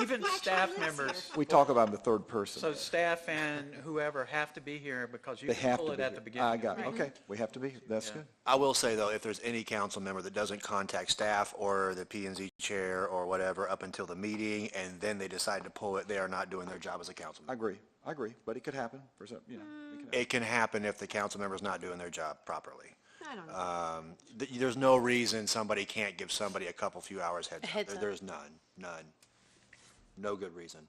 even staff members, We talk about in the third so person. staff and whoever have to be here because you They can have pull to it be at the here. beginning. I got it. Okay, we have to be here. That's good. I will say, though, if there's any council member that doesn't contact staff or the P and Z chair or whatever up until the meeting, and then they decide to pull it, they are not doing their job as a council I member. agree. I agree, but it could happen for some, you know. it could happen. It can happen if the council member's not doing their job properly. I don't know. Um, th- There's no reason somebody can't give somebody a couple, few hours heads up. Heads There- up. There's none, none. No good reason.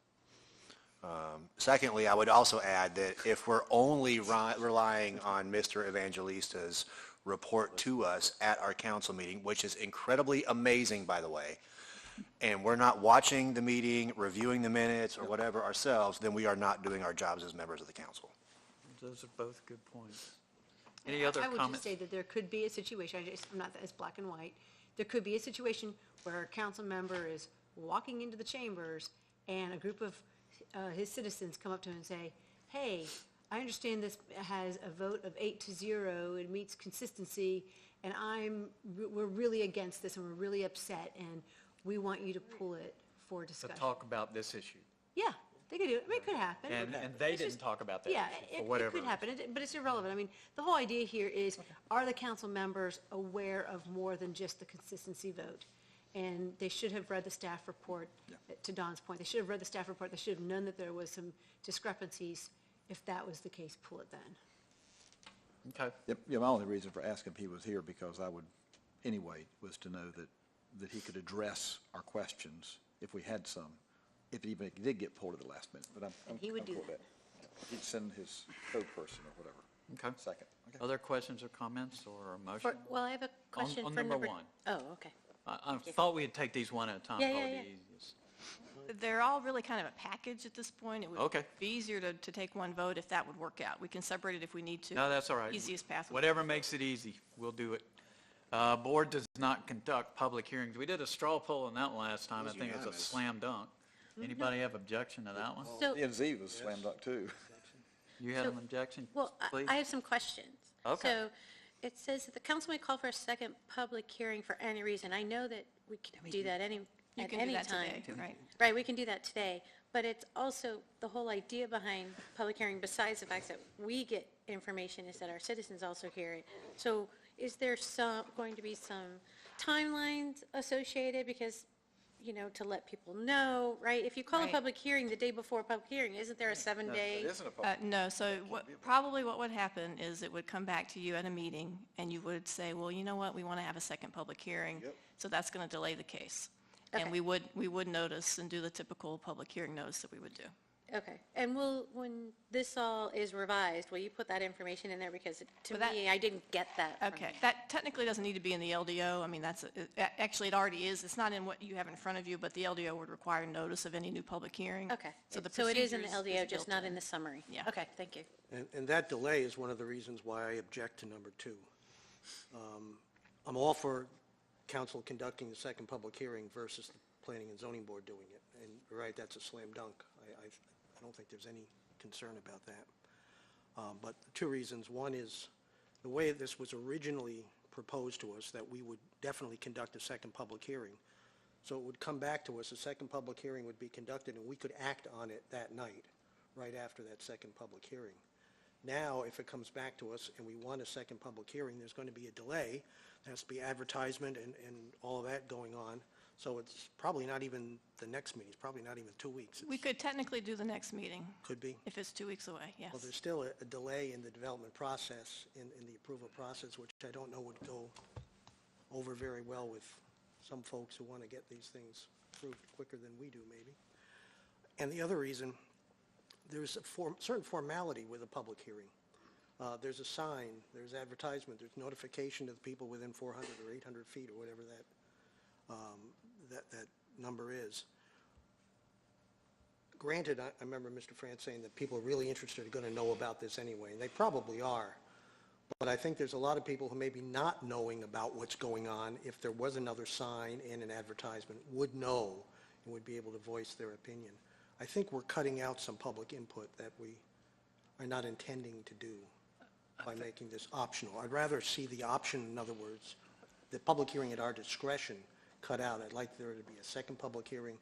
Um, Secondly, I would also add that if we're only ri- relying on Mr. Evangelista's report to us at our council meeting, which is incredibly amazing, by the way, and we're not watching the meeting, reviewing the minutes or whatever ourselves, then we are not doing our jobs as members of the council. Those are both good points. Any other I would just comments? say that there could be a situation, I just, I'm not, it's black and white. There could be a situation where a council member is walking into the chambers and a group of uh, his citizens come up to him and say, hey, I understand this has a vote of eight to zero, it meets consistency, and I'm, we're really against this and we're really upset and we want you to pull it for To discussion. talk about this issue. Yeah, they could do it, I mean, it could happen. And, and they It's didn't just- talk about that Yeah, issue, it- for it whatever. could happen, it- but it's irrelevant. I mean, the whole idea here is, are the council members aware of more than just the consistency vote? And they should have read the staff report, uh, to Don's point, they should have read the staff report, they should have known that there was some discrepancies. If that was the case, pull it then. Okay. Yep, yeah, my only reason for asking if he was here, because I would, anyway, was to know that, that he could address our questions if we had some, if even it did get pulled at the last minute, but I'm, I'm he would I'm do cool with that. He'd send his code person or whatever. Okay. Second, okay. Other questions or comments or a motion? For, well, I have a question on for number number. one. Oh, okay. I, I thought we'd take these one at a time, Yeah, probably yeah, the yeah. easiest. They're all really kind of a package at this point. It would Okay. be easier to, to take one vote if that would work out. We can separate it if we need to. No, that's all right. Easiest path. would- Whatever makes it easy, we'll do it. Uh, Board does not conduct public hearings. We did a straw poll on that last time. I think it's a unanimous. slam dunk. Anybody have objection to that one? Mm-hmm. So, E and Z was slam dunk too. You had So- an objection? well, I- Please. I have some questions. Okay. So it says that the council may call for a second public hearing for any reason. I know that we can do that any, You at can do any that time. today, right? Right, we can do that today, but it's also the whole idea behind public hearing, besides the fact that we get information, is that our citizens also hear it. So is there some, going to be some timelines associated? Because, you know, to let people know, right? If you call a Right. public hearing the day before a public hearing, isn't there a seven-day? Uh, No, so what, probably what would happen is it would come back to you at a meeting, and you would say, well, you know what, we want to have a second public hearing. So that's going to delay the case. And Okay. we would, we would notice and do the typical public hearing notice that we would do. Okay, and will, when this all is revised, will you put that information in there? Because to Well, that- Uh, me, I didn't get that. from Okay, you. that technically doesn't need to be in the LDO. I mean, that's, it- a- actually, it already is. It's not in what you have in front of you, but the LDO would require notice of any new public hearing. Okay, So the so it is in the procedures is LDO, just built not in the summary? Yeah. Okay, thank you. And, and that delay is one of the reasons why I object to number two. Um, I'm all for council conducting the second public hearing versus the planning and zoning board doing it. And, you're right, that's a slam dunk. I, I, I don't think there's any concern about that. Um, but two reasons. One is, the way this was originally proposed to us, that we would definitely conduct a second public hearing. So it would come back to us, a second public hearing would be conducted, and we could act on it that night, right after that second public hearing. Now, if it comes back to us and we want a second public hearing, there's going to be a delay. There has to be advertisement and, and all of that going on. So it's probably not even the next meeting, it's probably not even two weeks. We It could technically do the next meeting, could be. if it's two weeks away, yes. Well, there's still a a delay in the development process, in, in the approval process, which I don't know would go over very well with some folks who want to get these things approved quicker than we do, maybe. And the other reason, there's a form, certain formality with a public hearing. Uh, There's a sign, there's advertisement, there's notification to the people within 400 or 800 feet or whatever that, um, that, that number is granted, I I remember Mr. France saying that people are really interested are going to know about this anyway, and they probably are. But I think there's a lot of people who may be not knowing about what's going on, if there was another sign and an advertisement, would know and would be able to voice their opinion. I think we're cutting out some public input that we are not intending to do by making this optional. I'd rather see the option, in other words, the public hearing at our discretion cut out. I'd like there to be a second public hearing